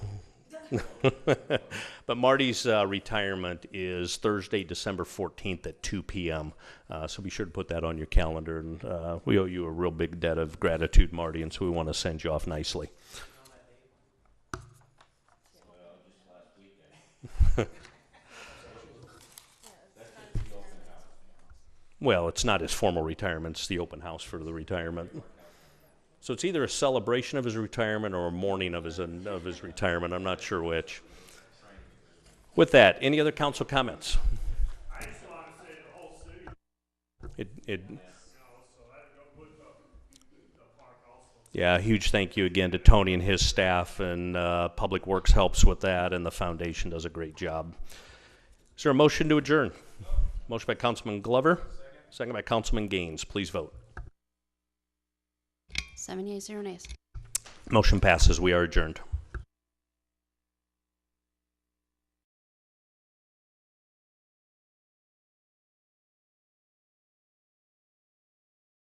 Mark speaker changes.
Speaker 1: But Marty's uh, retirement is Thursday, December 14th at 2 p.m. Uh, so be sure to put that on your calendar. And uh, we owe you a real big debt of gratitude, Marty, and so we want to send you off nicely. Well, it's not his formal retirement, it's the open house for the retirement. So it's either a celebration of his retirement or a mourning of his, of his retirement. I'm not sure which. With that, any other council comments?
Speaker 2: I just want to say the whole city, you
Speaker 1: It, it,
Speaker 2: know, so that go put the, the park also.
Speaker 1: yeah, a huge thank you again to Tony and his staff, and uh, Public Works helps with that, and the foundation does a great job. Is there a motion to adjourn? Motion by Councilman Glover, second by Councilman Gaines. Please vote.
Speaker 3: Seven yeas, zero nays.
Speaker 1: Motion passes. We are adjourned.